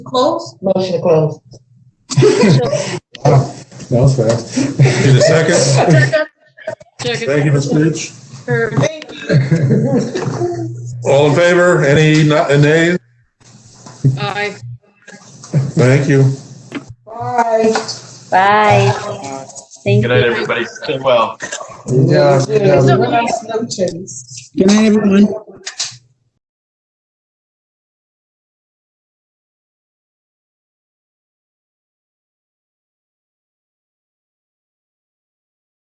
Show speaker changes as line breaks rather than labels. Close?
Motion to close.
That was fast.
Need a second? Thank you, Ms. Gooch.
Thank you.
All in favor? Any na- nays?
Aye.
Thank you.
Bye.
Bye. Thank
Good night,
you.
everybody. Stay well.
Good job, good job.
Congratulations.
Good night, everyone.